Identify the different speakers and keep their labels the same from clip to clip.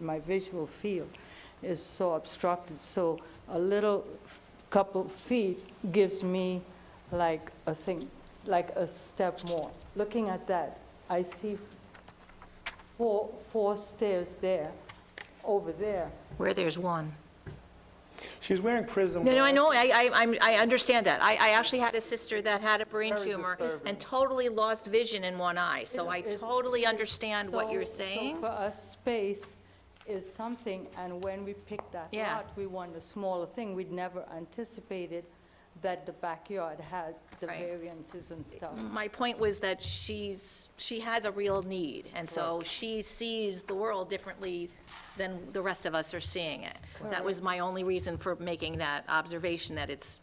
Speaker 1: my visual field is so obstructed, so a little f- couple feet gives me like a thing, like a step more. Looking at that, I see four, four stairs there, over there.
Speaker 2: where there's one.
Speaker 3: She's wearing prism.
Speaker 2: No, no, I
Speaker 3: glasses.
Speaker 2: know, I, I, I'm- I understand that. I, I actually had a sister that had a brain
Speaker 3: Very
Speaker 2: tumor
Speaker 3: disturbing.
Speaker 2: and totally lost vision in one eye, so I
Speaker 1: It's-
Speaker 2: totally understand what you're
Speaker 1: So-
Speaker 2: saying.
Speaker 1: So for us, space is something, and when we picked that
Speaker 2: Yeah.
Speaker 1: lot, we want a smaller thing. We'd never anticipated that the backyard had the
Speaker 2: Right.
Speaker 1: variances and stuff.
Speaker 2: My point was that she's, she has a real need, and so she sees the world differently than the rest of us are seeing it. That was my only reason for making that observation, that it's,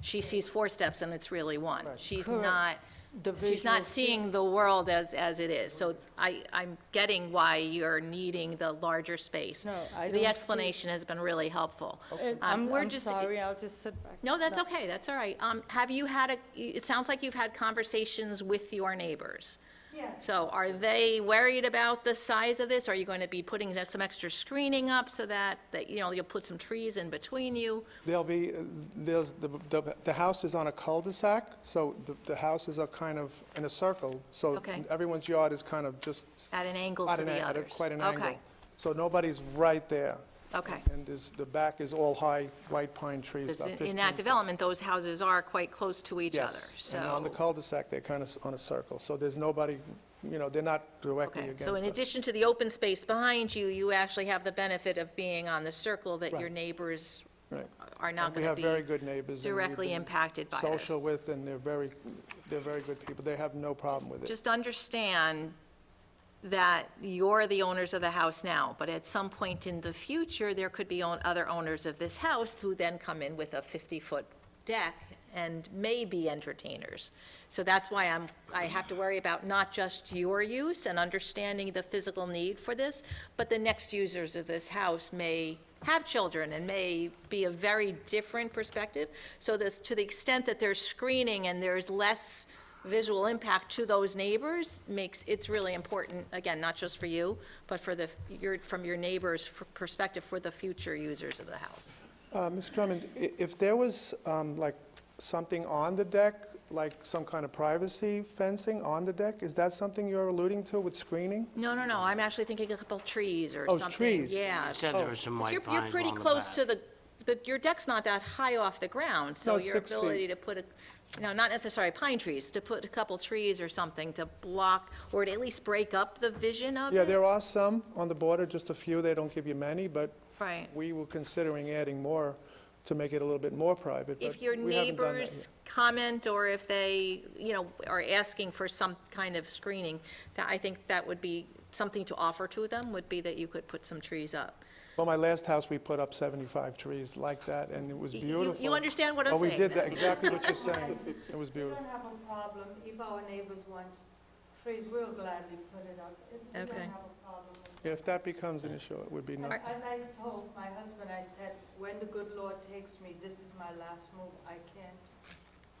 Speaker 2: she sees four steps and it's really one. She's
Speaker 1: Correct.
Speaker 2: not,
Speaker 1: The
Speaker 2: she's
Speaker 1: visual
Speaker 2: not seeing the world as, as it is. So I, I'm getting why you're needing the larger space.
Speaker 1: No, I don't see-
Speaker 2: The explanation has been really helpful.
Speaker 1: And
Speaker 2: Um,
Speaker 1: I'm,
Speaker 2: we're
Speaker 1: I'm
Speaker 2: just-
Speaker 1: sorry, I'll just sit back.
Speaker 2: no, that's okay, that's all right. Um, Have you had a, it sounds like you've had conversations with your neighbors.
Speaker 1: Yeah.
Speaker 2: So are they worried about the size of this? Are you going to be putting some extra screening up so that, that, you know, you'll put some trees in between you?
Speaker 3: There'll be, there's, the, the, the house is on a cul-de-sac, so the, the houses are kind of in a circle, so
Speaker 2: Okay.
Speaker 3: everyone's yard is kind of just.
Speaker 2: At an angle
Speaker 3: at
Speaker 2: to
Speaker 3: an
Speaker 2: the
Speaker 3: an- at a-
Speaker 2: others.
Speaker 3: Quite an
Speaker 2: Okay.
Speaker 3: angle. So nobody's right there.
Speaker 2: Okay.
Speaker 3: And there's, the back is all high white pine trees,
Speaker 2: Because
Speaker 3: about
Speaker 2: in-
Speaker 3: 15.
Speaker 2: in that development, those houses are quite close to each other,
Speaker 3: Yes,
Speaker 2: so.
Speaker 3: and on the cul-de-sac, they're kind of on a circle, so there's nobody, you know, they're not directly
Speaker 2: Okay,
Speaker 3: against
Speaker 2: so in
Speaker 3: us.
Speaker 2: addition to the open space behind you, you actually have the benefit of being on the circle that your
Speaker 3: Right.
Speaker 2: neighbors
Speaker 3: Right.
Speaker 2: are not
Speaker 3: And we
Speaker 2: going to
Speaker 3: have
Speaker 2: be.
Speaker 3: very good neighbors. and we've
Speaker 2: directly
Speaker 3: been
Speaker 2: impacted by this.
Speaker 3: Social with, and they're very, they're very good people. They have no problem with it.
Speaker 2: Just understand that you're the owners of the house now, but at some point in the future, there could be own- other owners of this house who then come in with a 50-foot deck and may be entertainers. So that's why I'm, I have to worry about not just your use and understanding the physical need for this, but the next users of this house may have children and may be a very different perspective. So this, to the extent that there's screening and there's less visual impact to those neighbors makes, it's really important, again, not just for you, but for the, your, from your neighbors' f- perspective for the future users of the house.
Speaker 3: Uh, Ms. Drummond, i- if there was, um, like, something on the deck, like some kind of privacy fencing on the deck, is that something you're alluding to with screening?
Speaker 2: No, no, no, I'm actually thinking a couple trees or
Speaker 3: Oh,
Speaker 2: something.
Speaker 3: trees.
Speaker 2: Yeah.
Speaker 4: You said there were some
Speaker 2: Oh, You're,
Speaker 4: white pines
Speaker 2: you're pretty
Speaker 4: along the
Speaker 2: close
Speaker 4: back.
Speaker 2: to the, the, your deck's not that high off the ground, so
Speaker 3: No,
Speaker 2: your
Speaker 3: six feet.
Speaker 2: ability to put a, you know, not necessarily pine trees, to put a couple trees or something to block, or to at least break up the vision of it.
Speaker 3: Yeah, there are some on the border, just a few, they don't give you many, but
Speaker 2: Right.
Speaker 3: we were considering adding more to make it a little bit more private, but
Speaker 2: If your
Speaker 3: we haven't done that
Speaker 2: neighbors comment, or if they, you know, are asking for some kind of screening, that, I think that would be, something to offer to them would be that you could put some trees up.
Speaker 3: yet. Well, my last house, we put up 75 trees like that, and it was
Speaker 2: You- you-
Speaker 3: beautiful.
Speaker 2: You understand what I'm
Speaker 3: Oh,
Speaker 2: saying?
Speaker 3: we did that,
Speaker 2: though?
Speaker 3: exactly what you're saying. It was
Speaker 1: We
Speaker 3: beautiful.
Speaker 1: don't have a problem, if our neighbors want trees, we'll gladly put it up. It- We don't
Speaker 2: Okay.
Speaker 1: have a problem with that.
Speaker 3: If that becomes an issue, it would be nice.
Speaker 1: As as I told my husband, I said, when the good Lord takes me, this is my last move, I can't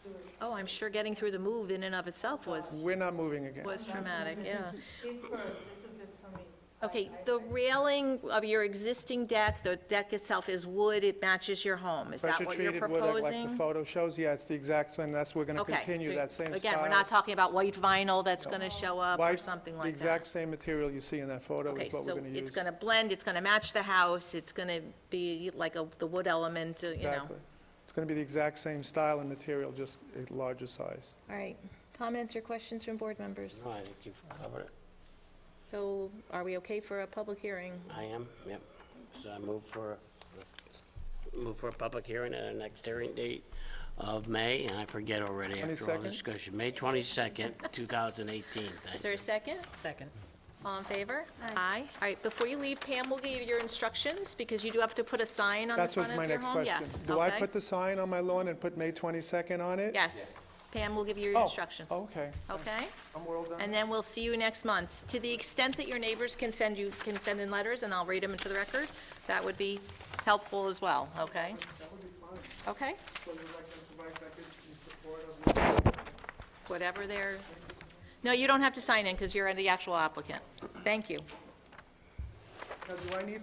Speaker 1: do it.
Speaker 2: Oh, I'm sure getting through the move in and of itself was,
Speaker 3: We're not moving again.
Speaker 2: was traumatic, yeah.
Speaker 1: Feet first, this is it for me. I-
Speaker 2: Okay,
Speaker 1: I-
Speaker 2: the
Speaker 1: I-
Speaker 2: railing of your existing deck, the deck itself is wood, it matches your home. Is that what you're
Speaker 3: Pressure-treated wood, like- like the
Speaker 2: proposing?
Speaker 3: photo shows, yeah, it's the exact same, that's, we're going to
Speaker 2: Okay,
Speaker 3: continue
Speaker 2: so
Speaker 3: that same style.
Speaker 2: Again, we're not talking about white vinyl that's going to show up or
Speaker 3: White-
Speaker 2: something
Speaker 3: The
Speaker 2: like that.
Speaker 3: exact same material you see in that photo
Speaker 2: Okay,
Speaker 3: is what we're
Speaker 2: so
Speaker 3: going to use.
Speaker 2: it's going to blend, it's going to match the house, it's going to be like a, the wood element, uh, you know.
Speaker 3: Exactly. It's going to be the exact same style and material, just a larger size.
Speaker 2: All right, comments or questions from board members?
Speaker 4: No, I think you've covered it.
Speaker 2: So are we okay for a public hearing?
Speaker 4: I am, yep. So I move for, move for a public hearing at our next hearing date of May, and I forget already after all
Speaker 3: 22nd?
Speaker 4: the discussion. May 22nd, 2018.
Speaker 2: Is there a second?
Speaker 5: Second.
Speaker 2: All in favor? Aye. All right, before you leave, Pam will give you your instructions, because you do have to put a sign on the
Speaker 3: That's
Speaker 2: front
Speaker 3: what's
Speaker 2: of
Speaker 3: my
Speaker 2: your
Speaker 3: next
Speaker 2: home.
Speaker 3: question.
Speaker 2: Yes,
Speaker 3: Do I
Speaker 2: okay.
Speaker 3: put the sign on my lawn and put May 22nd on it?
Speaker 2: Yes, Pam will give you your
Speaker 3: Oh,
Speaker 2: instructions.
Speaker 3: Okay.
Speaker 2: Okay?
Speaker 3: I'm well done.
Speaker 2: And then we'll see you next month. To the extent that your neighbors can send you, can send in letters, and I'll read them into the record, that would be helpful as well, okay? Okay? Whatever they're, no, you don't have to sign in, because you're the actual applicant. Thank you.
Speaker 3: Now, do I need